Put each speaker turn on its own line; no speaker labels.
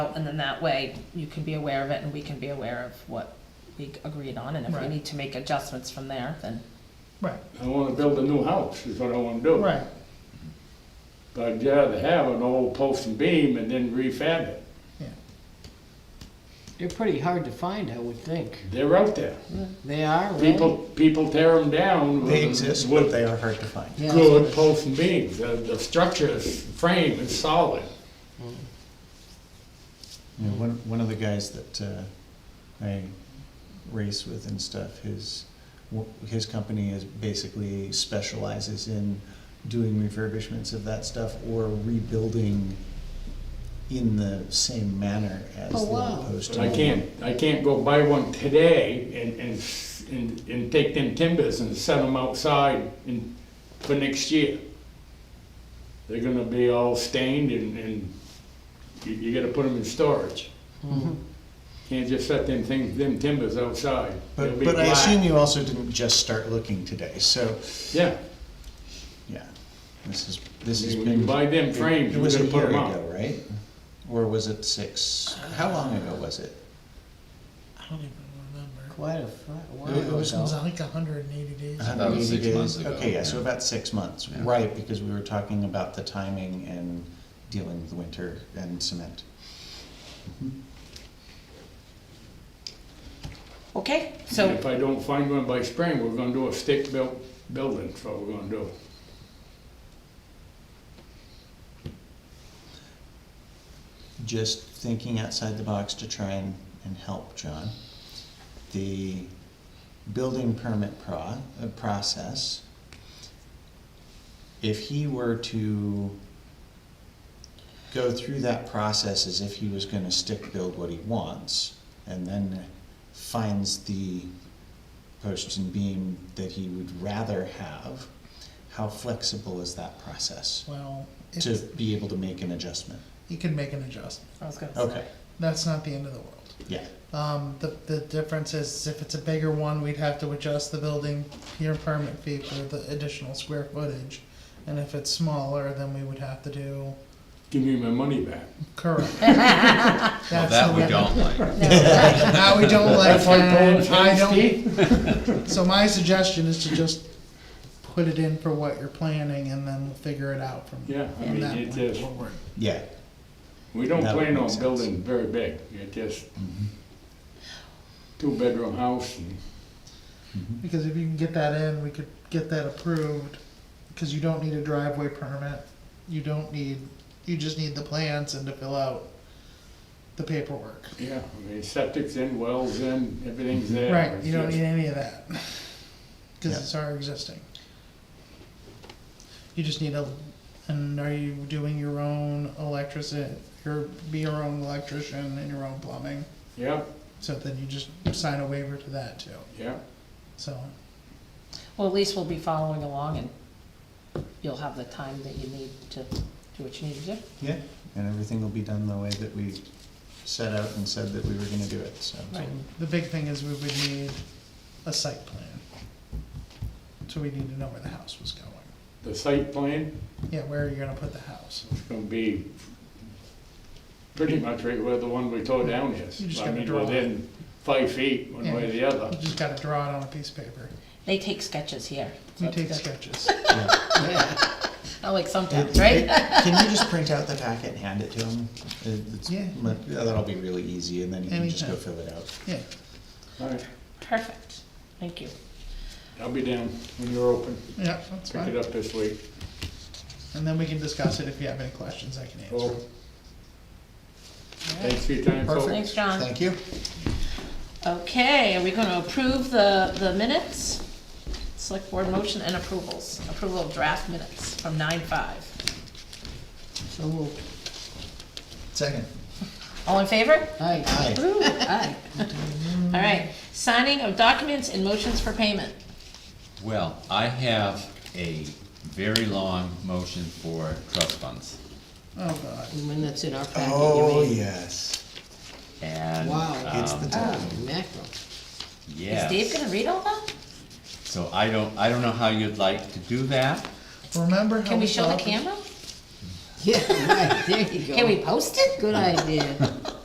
And then that way, you can be aware of it and we can be aware of what we agreed on, and if we
Right.
need to make adjustments from there, then.
Right,
I wanna build a new house, is what I wanna do.
right,
But I'd rather have an old post and beam and then refab it.
They're pretty hard to find, I would think.
They're out there.
They are, really?
People, people tear them down.
They
with-
exist,
with
but they are hard to find.
Yeah.
Good posts and beams. The, the structure is, frame is solid.
You know, one, one of the guys that uh, I race with and stuff, his, wo- his company is basically specializes in doing refurbishments of that stuff or rebuilding in the same manner as the
Oh, wow.
post.
But I can't, I can't go buy one today and, and, s- and, and take them timbers and set them outside in, for next year. They're gonna be all stained and, and you, you gotta put them in storage. Can't just set them things, them timbers outside. They'll
But,
be
but I
black.
assume you also didn't just start looking today, so,
Yeah,
yeah, this is, this has
you
been.
you buy them frames,
It
we're
was a
gonna put
year
them out.
ago, right? Or was it six, how long ago was it?
I don't even remember.
Quite a fi- wow.
It was
It was like hundred and eighty days.
That
180
was six months
days.
ago,
Okay, yeah, so
yeah.
about six months,
Yeah.
right, because we were talking about the timing and dealing with the winter and cement.
Okay,
And
so,
if I don't find one by spring, we're gonna do a stick-built building, that's what we're gonna do.
Just thinking outside the box to try and, and help, John. The building permit pro, uh, process, if he were to go through that process as if he was gonna stick build what he wants, and then finds the post and beam that he would rather have, how flexible is that process
Well,
to
it,
be able to make an adjustment?
you can make an adjustment.
I was gonna say,
Okay,
That's not the end of the world.
yeah.
Um, the, the difference is if it's a bigger one, we'd have to adjust the building pier permit fee for the additional square footage. And if it's smaller, then we would have to do,
Give me my money back.
correct.
Well,
That's
that
the
we
way-
don't like.
Now we don't like
That's like pulling
that. I
Chinese
don't,
teeth.
so my suggestion is to just put it in for what you're planning and then we'll figure it out from,
Yeah, I
from
mean,
that
it
point
just,
forward.
Yeah,
we don't
That would
plan
make
on
sense. Mm-hmm.
building very big, it just, two-bedroom house, and
Because if you can get that in, we could get that approved, because you don't need a driveway permit, you don't need, you just need the plans and to fill out the paperwork.
yeah, I mean, septic's in, wells in, everything's there.
Right,
It's
you don't
just-
need any of that, because
Yeah.
it's already existing. You just need a, and are you doing your own electricity, your, be your own electrician and your own plumbing?
Yeah,
So then you just sign a waiver to that too,
yeah,
so,
well, at least we'll be following along and you'll have the time that you need to do what you need to do.
yeah, and everything will be done the way that we set out and said that we were gonna do it, so.
Right.
the big thing is we would need a site plan. So we need to know where the house was going,
the site plan
yeah, where are you gonna put the house?
is gonna be pretty much right where the one we tore down
You
is.
just
I
gotta
mean,
draw it.
Within five feet, one way or the
You
other.
just gotta draw it on a piece of paper,
They take sketches here. so
you
it's
take
good.
sketches.
Not like sometimes,
It-
right?
it- Can you just print out the packet and hand it to him? It- it's
Yeah.
mu- That'll be really easy, and then he can just go
Anytime.
fill it out.
Yeah,
All right,
Perfect, thank you.
I'll be down when you're open,
yeah, that's
pick it
fine.
up this week.
And then we can discuss it if you have any questions I can answer.
Well, thanks for your time, folks.
Perfect.
Thanks, John.
Thank you.
Okay, are we gonna approve the, the minutes? Select board motion and approvals, approval of draft minutes from nine five.
So we'll-
Second.
All in favor?
Hi.
Aye.
Woo, aye. All right, signing of documents and motions for payment.
Well, I have a very long motion for trust funds.
Oh, God.
And when that's in our packet,
Oh,
you mean?
yes.
And,
Wow.
It's the
um,
Oh,
time.
mackerel.
Is Dave
yes,
gonna read all that?
so I don't, I don't know how you'd like to do that.
Remember how
Can we show the
thought that-
camera? Yeah, right, there you go.
Can we post it?
Good idea.